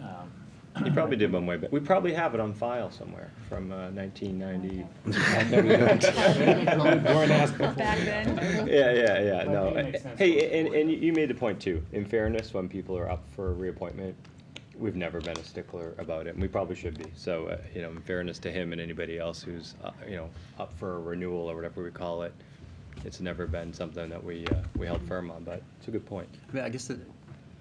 Um, You probably did one way back. We probably have it on file somewhere from uh, 1990. Back then. Yeah, yeah, yeah, But no. eh, it makes sense Hey, going and, and you- you made a point too. In fairness, when people are up for a reappointment, we've never been a stickler about it, and we probably should be. So, uh, you know, in fairness to him and anybody else who's, uh, you know, up for a renewal or whatever we call it, it's never been something that we, uh, we held firm on, but it's a good point. I mean, I guess, that-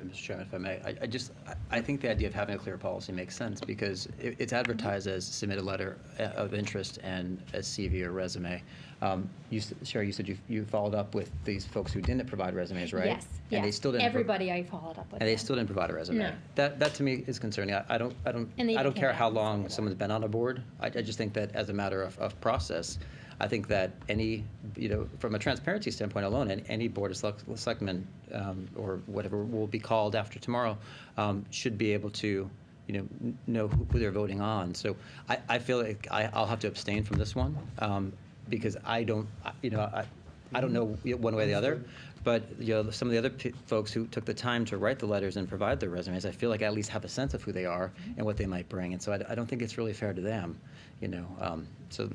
Mr. Chairman, if I may, I, I just, I, I think the idea of having a clear policy makes sense because it, it's advertised as submit a letter uh, of interest and a CV or resume. Um, you, s- Sherry, you said you, you followed up with these folks who didn't provide resumes, right? Yes, And they yes. still didn't. pro- Everybody I followed up with. And they them. still didn't provide a resume. No. That, that to me is concerning. I, I don't, I don't, And they I even don't came care back how and said long that. someone's been on a board. I, I just think that as a matter of, of process, I think that any, you know, from a transparency standpoint alone, and any board of select, selectmen, um, or whatever will be called after tomorrow, um, should be able to, you know, n- know who they're voting on. So I, I feel like I, I'll have to abstain from this one, um, because I don't, I- you know, I, I don't know y- one way or the other, but, you know, some of the other p- folks who took the time to write the letters and provide their resumes, I feel like I at least have a sense of who they are and what they might bring, and so I, d- I don't think it's really fair to them, you know, um, so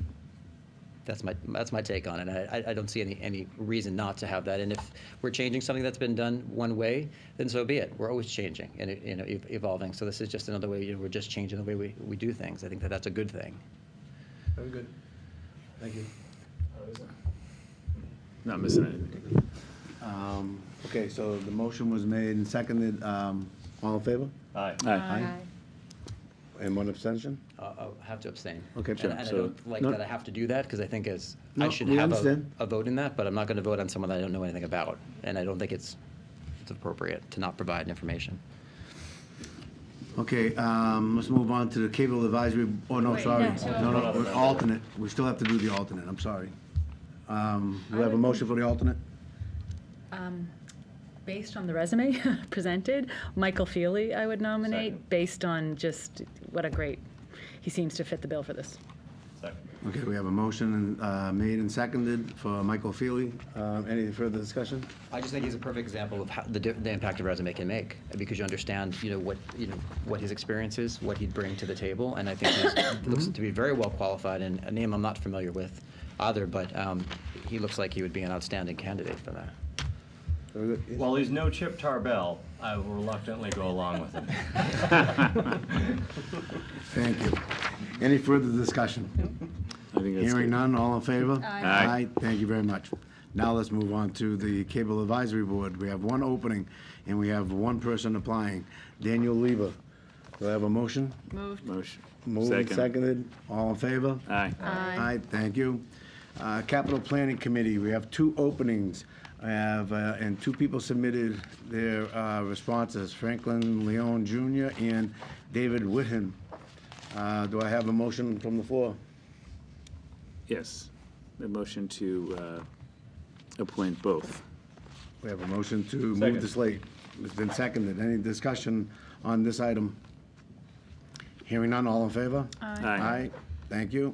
that's my, that's my take on it. I, I- I don't see any, any reason not to have that, and if we're changing something that's been done one way, then so be it. We're always changing and, it- you know, ev- evolving, so this is just another way, you know, we're just changing the way we, we do things. I think that that's a good thing. Very good. Thank you. Not missing anything. Um, Okay, so the motion was made and seconded. Um, All in favor? Aye. Aye. And one abstention? I'll I'll uh, have to abstain. Okay, And- sure. And I So- don't like No. that I have to do that, because I think as, I No, should we have a, understand. a vote in that, but I'm not gonna vote on someone that I don't know anything about, and I don't think it's, it's appropriate to not provide information. Okay, um, let's move on to the Cable Advisory, oh, no, Wait, sorry. No, no. no, we're alternate. We still have to do the alternate, I'm sorry. Um, Do we have a motion for the alternate? Um, Based on the resume presented, Michael Feely I would nominate, Second. based on just what a great, he seems to fit the bill for this. Second. Okay, we have a motion uh, made and seconded for Michael Feely. Uh, Any further discussion? I just think he's a perfect example of how, the, di- the impact a resume can make, because you understand, you know, what, you know, what his experience is, what he'd bring to the table, and I think he looks to be very well qualified, and a name I'm not familiar with either, but, um, he looks like he would be an outstanding candidate for that. Very good. Yes? While he's no Chip Tarbell, I will reluctantly go along with him. Thank you. Any further discussion? I think that's Hearing good. none, all in favor? Aye. Thank you very much. Now let's move on to the Cable Advisory Board. We have one opening, and we have one person applying, Daniel Lieber. Do I have a motion? Motion. Moved and seconded, all in favor? Aye. Aye, thank you. Uh, Capital Planning Committee, we have two openings. I have, uh, and two people submitted their uh, responses, Franklin Leon Jr. and David Whitten. Uh, Do I have a motion from the floor? Yes. A motion to uh, appoint both. We have a motion to move Second. the slate. It's been seconded. Any discussion on this item? Hearing none, all in favor? Aye. thank you.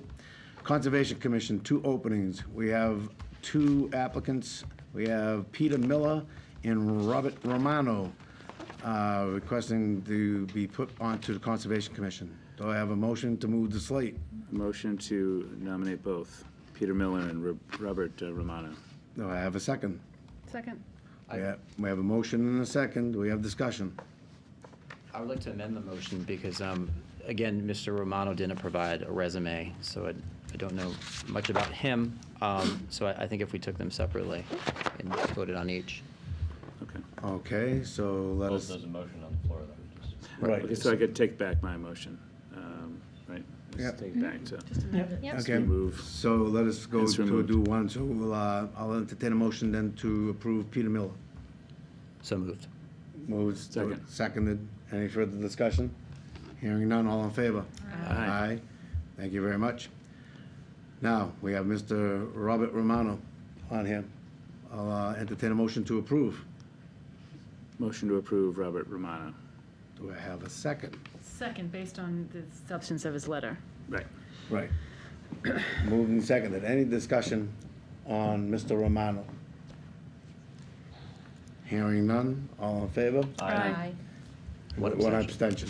Conservation Commission, two openings. We have two applicants. We have Peter Miller and Robert Romano uh, requesting to be put onto the Conservation Commission. Do I have a motion to move the slate? A motion to nominate both Peter Miller and Ro- Robert uh, Romano. Do I have a second? Second. We have- we have a motion and a second. Do we have discussion? I would like to amend the motion because, um, again, Mr. Romano didn't provide a resume, so I, I don't know much about him. Um, so I, I think if we took them separately and voted on each. Okay. Okay, so let us. motion on the floor, though. Right. Okay, so I could take back my motion, um, right? Yep. Just take back to, Yep. Okay, Remove. so let us go It's to removed. do one, so we'll, uh, I'll entertain a motion then to approve Peter Miller. So moved. Moves. Second. Seconded. Any further discussion? Hearing none, all in favor? Aye. Thank you very much. Now, we have Mr. Robert Romano on here. I'll uh, entertain a motion to approve. motion to approve Robert Romano. Do I have a second? Second, based on the substance of his letter. Right. Right. Moved and seconded. Any discussion on Mr. Romano? Hearing none, all in favor? Aye. One abstention.